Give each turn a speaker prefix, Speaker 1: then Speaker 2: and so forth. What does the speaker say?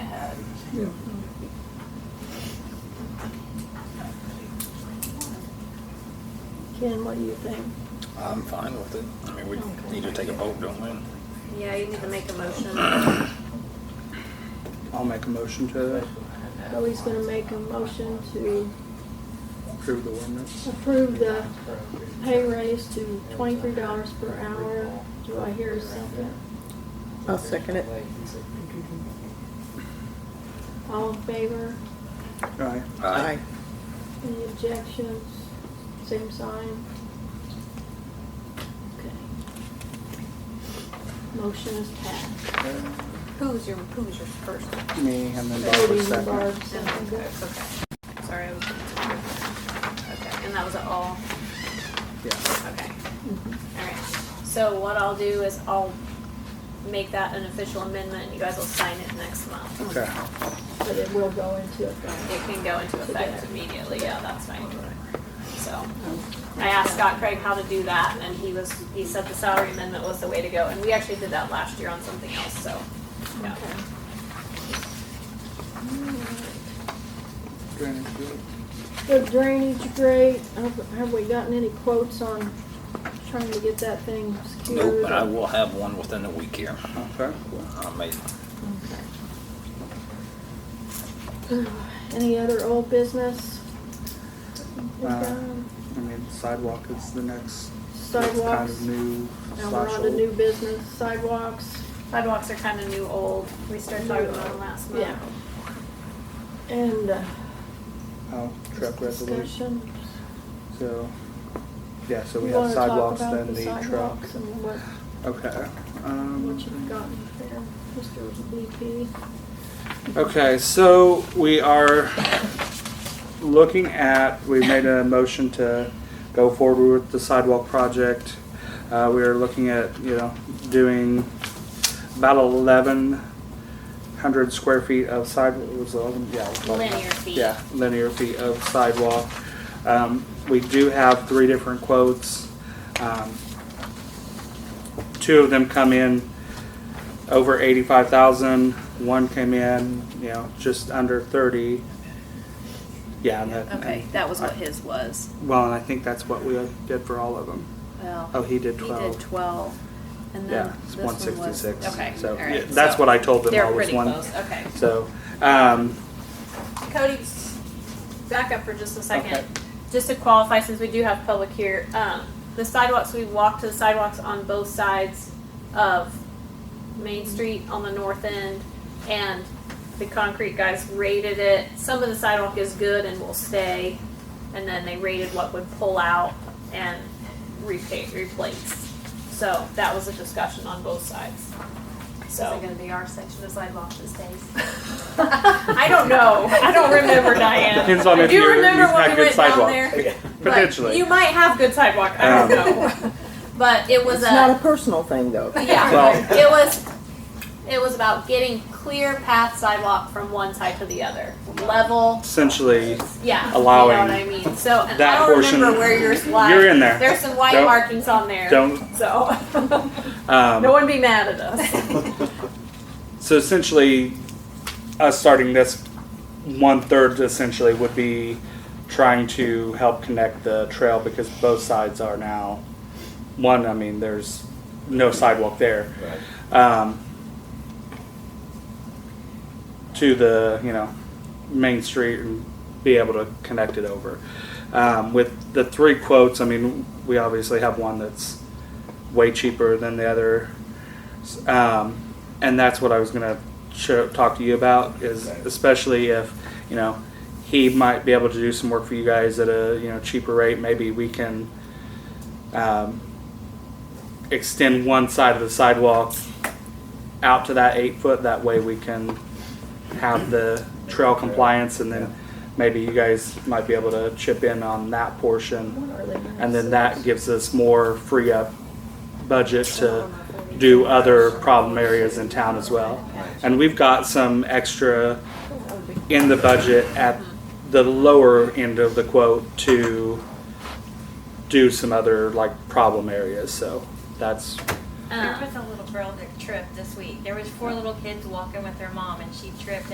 Speaker 1: Yeah.
Speaker 2: Ken, what do you think?
Speaker 3: I'm fine with it. I mean, we need to take a vote, don't we?
Speaker 4: Yeah, you need to make a motion.
Speaker 1: I'll make a motion to
Speaker 2: So he's gonna make a motion to
Speaker 1: approve the ordinance.
Speaker 2: approve the pay raise to twenty-three dollars per hour. Do I hear a second?
Speaker 5: I'll second it.
Speaker 2: All in favor?
Speaker 1: Aye.
Speaker 3: Aye.
Speaker 2: Any objections? Same sign? Okay. Motion is passed.
Speaker 4: Who was your, who was your first?
Speaker 1: Me and then Bob
Speaker 2: Cody
Speaker 1: was
Speaker 2: and
Speaker 1: second.
Speaker 2: Barb
Speaker 4: Okay,
Speaker 2: seconded.
Speaker 4: okay. Sorry, I was. Okay, and that was it all?
Speaker 1: Yeah.
Speaker 4: Okay. Alright, so what I'll do is I'll make that an official amendment and you guys will sign it next month.
Speaker 1: Okay.
Speaker 2: But it will go into effect.
Speaker 4: It can go into effect immediately, yeah, that's fine. So, I asked Scott Craig how to do that and he was, he said the salary amendment was the way to go. And we actually did that last year on something else, so, yeah.
Speaker 1: Drainage good.
Speaker 2: The drainage grate, have have we gotten any quotes on trying to get that thing secured?
Speaker 3: Nope, but I will have one within the week here.
Speaker 1: Okay.
Speaker 3: I made,
Speaker 2: Any other old business?
Speaker 1: Uh, I mean, sidewalk is the next it's kind
Speaker 2: Sidewalks,
Speaker 1: of new
Speaker 2: now we're
Speaker 1: slash
Speaker 2: on to
Speaker 1: old.
Speaker 2: new business, sidewalks,
Speaker 4: Sidewalks are kinda new, old. We started talking about them last month.
Speaker 2: yeah. And uh,
Speaker 1: Oh, truck resolution.
Speaker 2: discussion.
Speaker 1: So, yeah, so
Speaker 2: You
Speaker 1: we
Speaker 2: wanna
Speaker 1: have
Speaker 2: talk
Speaker 1: sidewalks,
Speaker 2: about
Speaker 1: then the truck.
Speaker 2: sidewalks And what,
Speaker 1: Okay.
Speaker 2: what
Speaker 1: Um,
Speaker 2: you've gotten there, Mr. BP.
Speaker 1: Okay, so we are looking at, we made a motion to go forward with the sidewalk project. Uh, we are looking at, you know, doing about eleven hundred square feet of sidewalk, was it eleven, yeah. it was 11.
Speaker 4: Linear feet.
Speaker 1: Yeah, linear feet of sidewalk. Um, we do have three different quotes. Um, Two of them come in over eighty-five thousand. One came in, you know, just under thirty. Yeah, and that.
Speaker 4: Okay, that was what his was.
Speaker 1: Well, and I think that's what we did for all of them.
Speaker 4: Well.
Speaker 1: Oh, he did
Speaker 4: He
Speaker 1: 12.
Speaker 4: did twelve, and
Speaker 1: Yeah,
Speaker 4: then
Speaker 1: it's
Speaker 4: this
Speaker 1: one
Speaker 4: one was.
Speaker 1: sixty-six.
Speaker 4: Okay,
Speaker 1: So,
Speaker 4: all right,
Speaker 1: yeah, that's
Speaker 4: so
Speaker 1: what I told them,
Speaker 4: They're
Speaker 1: all was
Speaker 4: pretty
Speaker 1: one.
Speaker 4: close, okay.
Speaker 1: So, um,
Speaker 4: Cody, back up for just a second.
Speaker 1: Okay.
Speaker 4: Just to qualify, since we do have public here, um, the sidewalks, we walked to the sidewalks on both sides of Main Street on the north end, and the concrete guys rated it. Some of the sidewalk is good and will stay, and then they rated what would pull out and repa replace. So that was a discussion on both sides. So.
Speaker 6: Is it gonna be our section of sidewalk that stays?
Speaker 4: I don't know. I don't remember, Diane.
Speaker 1: Depends on
Speaker 4: I
Speaker 1: if
Speaker 4: do
Speaker 1: you're-
Speaker 4: remember
Speaker 1: you've had
Speaker 4: when we
Speaker 1: good
Speaker 4: went down
Speaker 1: sidewalks.
Speaker 4: there, but
Speaker 1: potentially.
Speaker 4: You might have good sidewalk. I don't
Speaker 1: Um,
Speaker 4: know. But it was
Speaker 5: It's not a
Speaker 4: a,
Speaker 5: personal thing, though.
Speaker 4: yeah.
Speaker 1: Well-
Speaker 4: it was it was about getting clear path sidewalk from one side to the other, level.
Speaker 1: essentially,
Speaker 4: Yeah,
Speaker 1: Allowing
Speaker 4: You know what I mean. So and
Speaker 1: that
Speaker 4: I don't
Speaker 1: portion-
Speaker 4: remember where yours was.
Speaker 1: You're in there.
Speaker 4: There's some white
Speaker 1: Don't-
Speaker 4: markings on there.
Speaker 1: don't,
Speaker 4: So
Speaker 1: um.
Speaker 4: no one be mad at us.
Speaker 1: So essentially, us starting this one third essentially would be trying to help connect the trail because both sides are now one. I mean, there's no sidewalk there. Um, to the you know main street and be able to connect it over. Um, with the three quotes, I mean, we obviously have one that's way cheaper than the other, um, and that's what I was gonna show, talk to you about. Is especially if you know he might be able to do some work for you guys at a you know cheaper rate. Maybe we can um, extend one side of the sidewalk out to that eight foot. That way we can have the trail compliance, and then maybe you guys might be able to chip in on that portion,
Speaker 2: What are they gonna
Speaker 1: and then
Speaker 2: say?
Speaker 1: that gives us more free up budget to do other problem areas in town as well. And we've got some extra in the budget at the lower end of the quote to do some other like problem areas, so that's,
Speaker 6: There
Speaker 4: Um,
Speaker 6: was a little girl that tripped this week. There was four little kids walking with their mom and she tripped